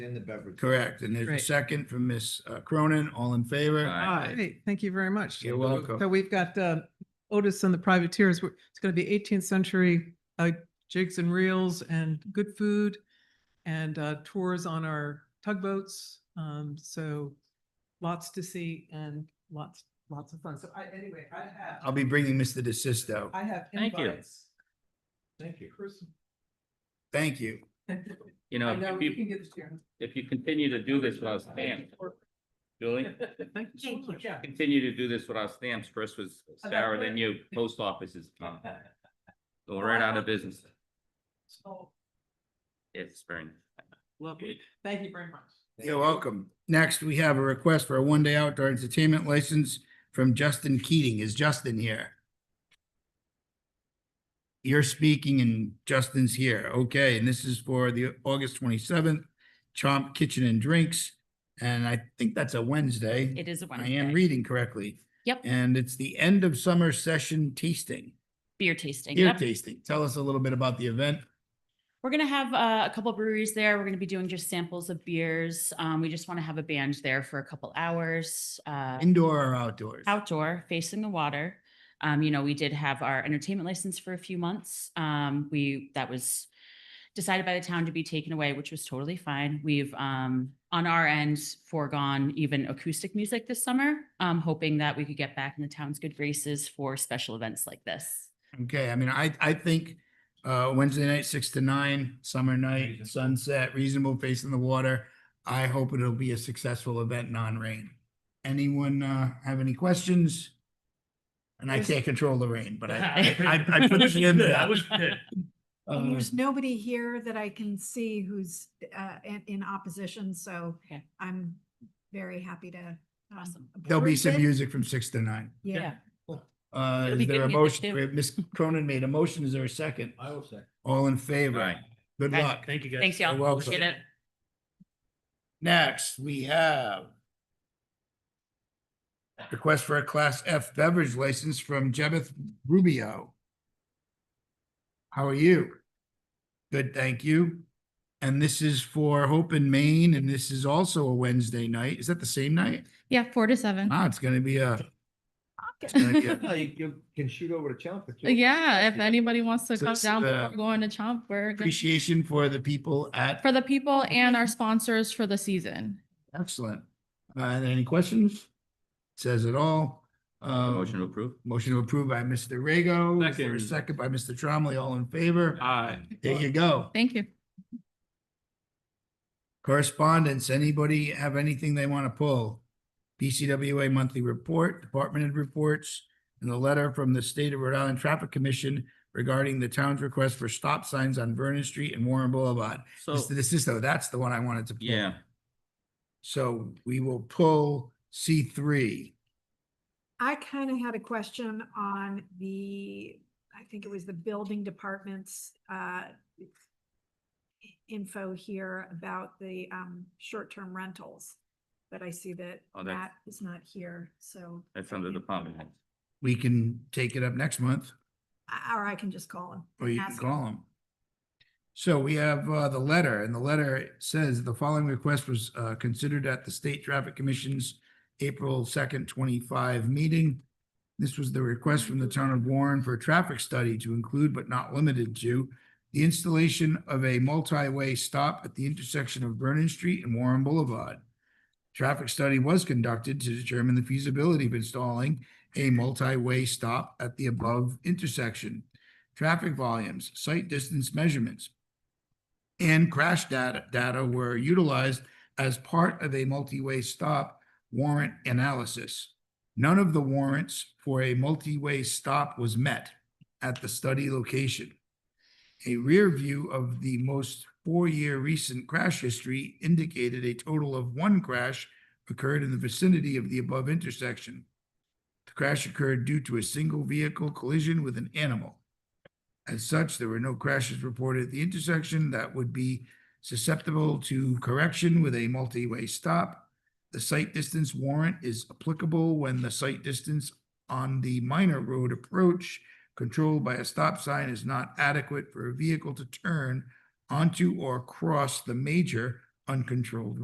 in the beverage. Correct. And there's a Great. second from Ms. uh, Cronin. All in favor? Aye. Hey, thank you very much. You're So welcome. we've got uh, Otis and the Privateers. We're- It's going to be 18th century uh, jigs and reels and good food and uh, tours on our tugboats. Um, So lots to see and lots, lots of fun. So I, anyway, I I'll have, be bringing Mr. DeSisto. I have Thank you. invites. Thank you. Thank you. I You know, know, Uh, if you you, can get this here. if you continue to do this without stamps, Julie, Thank you so much. Yeah. continue to do this without stamps, first was Sarah, then you, post office is gone. Go right out of business. So, It's spring. Lovely. Thank you very much. You're welcome. Next, we have a request for a one-day outdoor entertainment license from Justin Keating. Is Justin here? You're speaking and Justin's here. Okay, and this is for the August twenty-seventh Chomp Kitchen and Drinks. And I think that's a Wednesday. It is a I Wednesday. am reading correctly. Yep, And it's the end of summer session tasting, beer tasting. beer Yep. tasting. Tell us a little bit about the event. We're gonna have uh, a couple breweries there. We're gonna be doing just samples of beers. Um, we just want to have a band there for a couple hours. Uh, Indoor or outdoors? outdoor, facing the water. Um, you know, we did have our entertainment license for a few months. Um, we that was decided by the town to be taken away, which was totally fine. We've um on our end foregone even acoustic music this summer, um, hoping that we could get back in the town's good graces for special events like this. Okay, I mean, I, I think, uh, Wednesday night, six to nine, summer night, Reasonable. sunset, reasonable face in the water. I hope it'll be a successful event, non-rain. Anyone, uh, have any questions? And I can't control the rain, but I, I, I put it in there. And Uh, Um, there's nobody here that I can see who's uh in in opposition, so Okay. I'm very happy to. um, Awesome. There'll be approve some it. music from six to nine. Yeah, Uh, It'll is be there a good music motion? too. Wait, Ms. Cronin made a motion. Is there a second? I will say. All in favor? Aye. Good Aye. luck. Thank you, guys. Thanks, y'all. You're welcome. Appreciate it. Next, we have request for a Class F beverage license from Jebeth Rubio. How are you? Good, thank you. And this is for Hope in Maine, and this is also a Wednesday night. Is that the same night? Yeah, four to seven. Ah, it's gonna be a, it's Okay. gonna be a- No, You you can shoot over to Chelmsford. too. Uh, Yeah, if anybody wants to So come it's, down uh, before going to Chomp, we're good appreciation for the people at, for the people and our sponsors for the season. excellent. Uh, any questions? Says it all. Um, Motion to approve? Motion to approve by Mr. Rego. Is there a Second Second. by Mr. Tromley, all in favor. Aye. There you go. Thank you. Correspondence, anybody have anything they want to pull? BCWA monthly report, department head reports, and a letter from the State of Rhode Island Traffic Commission regarding the town's request for stop signs on Vernon Street and Warren Boulevard. So, Mr. DeSisto, that's the one I wanted to. pull. yeah, So we will pull C three. I kind of had a question on the, I think it was the building department's uh info here about the um short-term rentals, but I see that Oh, that's- Matt is not here, so. that's under the department. head. We can take it up next month. I- Or I can just call him. Or Oh, and you can ask him. call them. So we have uh, the letter, and the letter says the following request was uh, considered at the State Traffic Commission's April second twenty-five meeting. This was the request from the town of Warren for a traffic study to include but not limited to the installation of a multi-way stop at the intersection of Vernon Street and Warren Boulevard. Traffic study was conducted to determine the feasibility of installing a multi-way stop at the above intersection traffic volumes, site distance measurements, and crash data, data were utilized as part of a multi-way stop warrant analysis. None of the warrants for a multi-way stop was met at the study location. A rear view of the most four-year recent crash history indicated a total of one crash occurred in the vicinity of the above intersection. The crash occurred due to a single vehicle collision with an animal. As such, there were no crashes reported at the intersection that would be susceptible to correction with a multi-way stop. The site distance warrant is applicable when the site distance on the minor road approach controlled by a stop sign is not adequate for a vehicle to turn onto or cross the major uncontrolled